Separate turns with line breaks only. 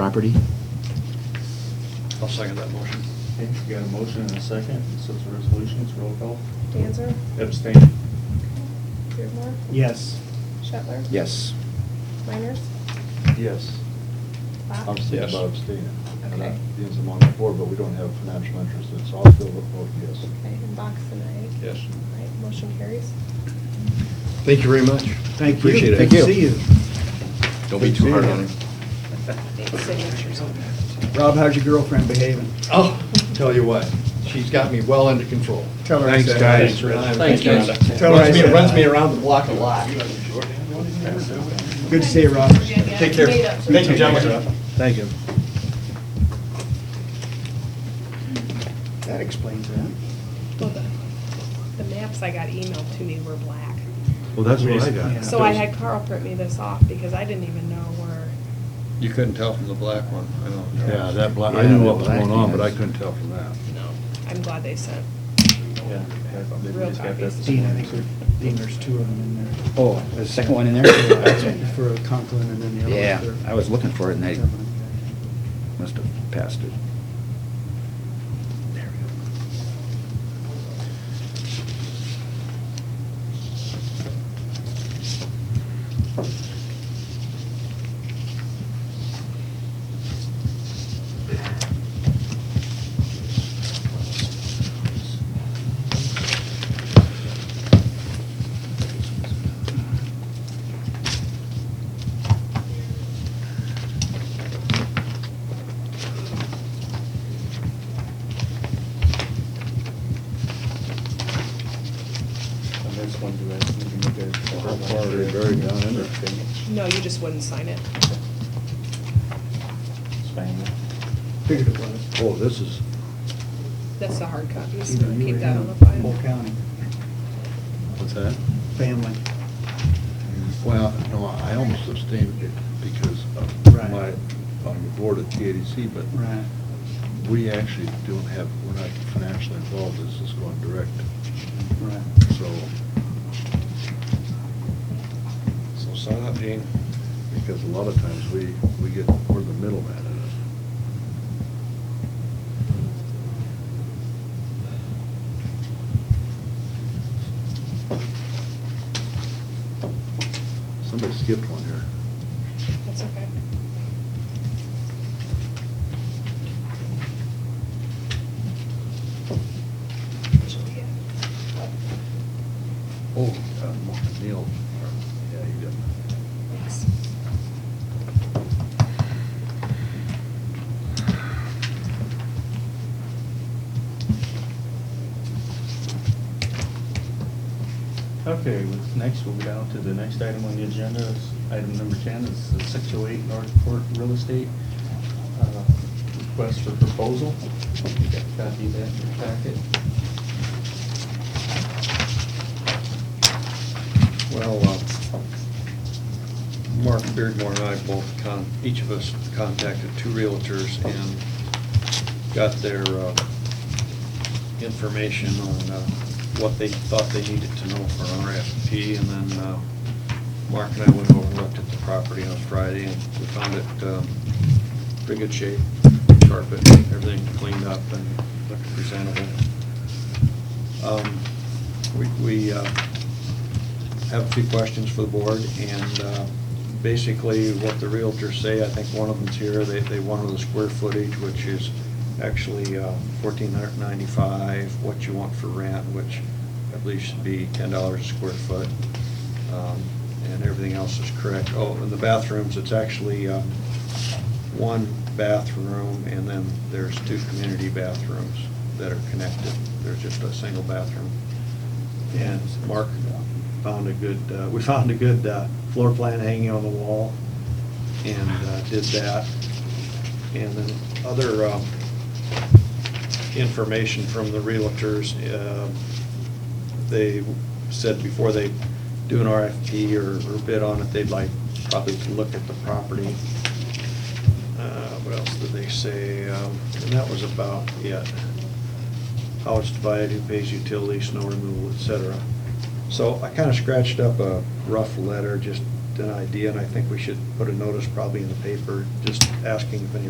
property.
I'll second that motion.
Okay, we got a motion and a second, so it's a resolution, it's roll call.
Danzer,
Abstain.
Beardmore,
Yes.
Shetler,
Yes.
Miners,
Yes.
Bach.
Obviously,
Yes.
about abstaining. And
Okay.
that Dean's among the board, but we don't have financial interest, in it, so I'll still vote yes.
Okay, and Bach's an aye.
Yes.
All right, motion carries.
Thank you very much.
Thank you.
Appreciate it.
Good to see you.
Don't be too hard on him.
Signatures on that.
Rob, how's your girlfriend behaving?
Oh, tell you what, she's got me well under control.
Tell her I
Thanks,
said
guys.
hi.
Rhonda.
Thanks, Rhonda.
Tell her I
Runs me-
said
Runs
hi.
me around the block a lot.
Good to see you, Rob.
Take care. Thank you, gentlemen.
Thank you. That explains that.
Well, the, the maps I got emailed to me were black.
Well, that's what I
got. Yeah.
So I had Carl print me this off because I didn't even know where,
You couldn't tell from the black one, I know.
Yeah, that, black- I knew what was going on, but I couldn't tell from that.
No.
I'm glad they sent.
Yeah.
Real
We just got that this
Dean, I
morning.
think there, Dean, there's two of them in there.
Oh, there's a second one in
That's
there?
For Conklin and then the other.
Yeah,
one for-
I was looking for it and I must have passed it. There we
And this one, do I need to make a-
How far are they buried down in there?
No, you just wouldn't sign it.
It's fine.
Figured it was.
Oh, this is,
That's the hard copy, so
Either you
keep
or
that
him.
on the file.
Whole county,
what's that?
family.
Well, no, I almost abstained it because
Right.
of my, on the board at TADC, but
Right.
we actually don't have, we're not financially involved, this is going direct,
Right.
so.
So sign up, Dean.
Because a lot of times we, we get, we're the middleman in it. Somebody skipped one here.
That's okay. uh,
Oh. uh, Neil, yeah, he did.
Thanks.
Okay, with- next we'll go down to the next item on the agenda, It's item number ten, is the six oh eight North Court Real Estate uh, request for proposal. You got a Copy of that in your packet.
Well, uh, Mark Beardmore and I both, con- each of us contacted two realtors and got their uh, information on uh, what they thought they needed to know for an RFP. And then uh, Mark and I went over and looked at the property on Friday, and we found it um, pretty good shape, carpet, everything cleaned up and looked presentable. Um, We, we uh, have a few questions for the board, and uh, basically what the realtors say, I think one of them's here, they, they wanted the square footage, which is actually uh, fourteen hundred ninety-five, what you want for rent, which I believe should be ten dollars a square foot, um, and everything else is correct. Oh, and the bathrooms, it's actually uh, one bathroom, and then there's two community bathrooms that are connected. There's just a single bathroom. And Mark found a good, uh, we found a good uh, floor plan hanging on the wall and uh, did that. And then other um, information from the realtors, um, they said before they do an RFP or or bid on it, they'd like probably to look at the property. Uh, What else did they say? Um, And that was about it how it's divided, who pays utilities, snow removal, et cetera. So I kind of scratched up a rough letter just an idea, and I think we should put a notice probably in the paper, just asking if any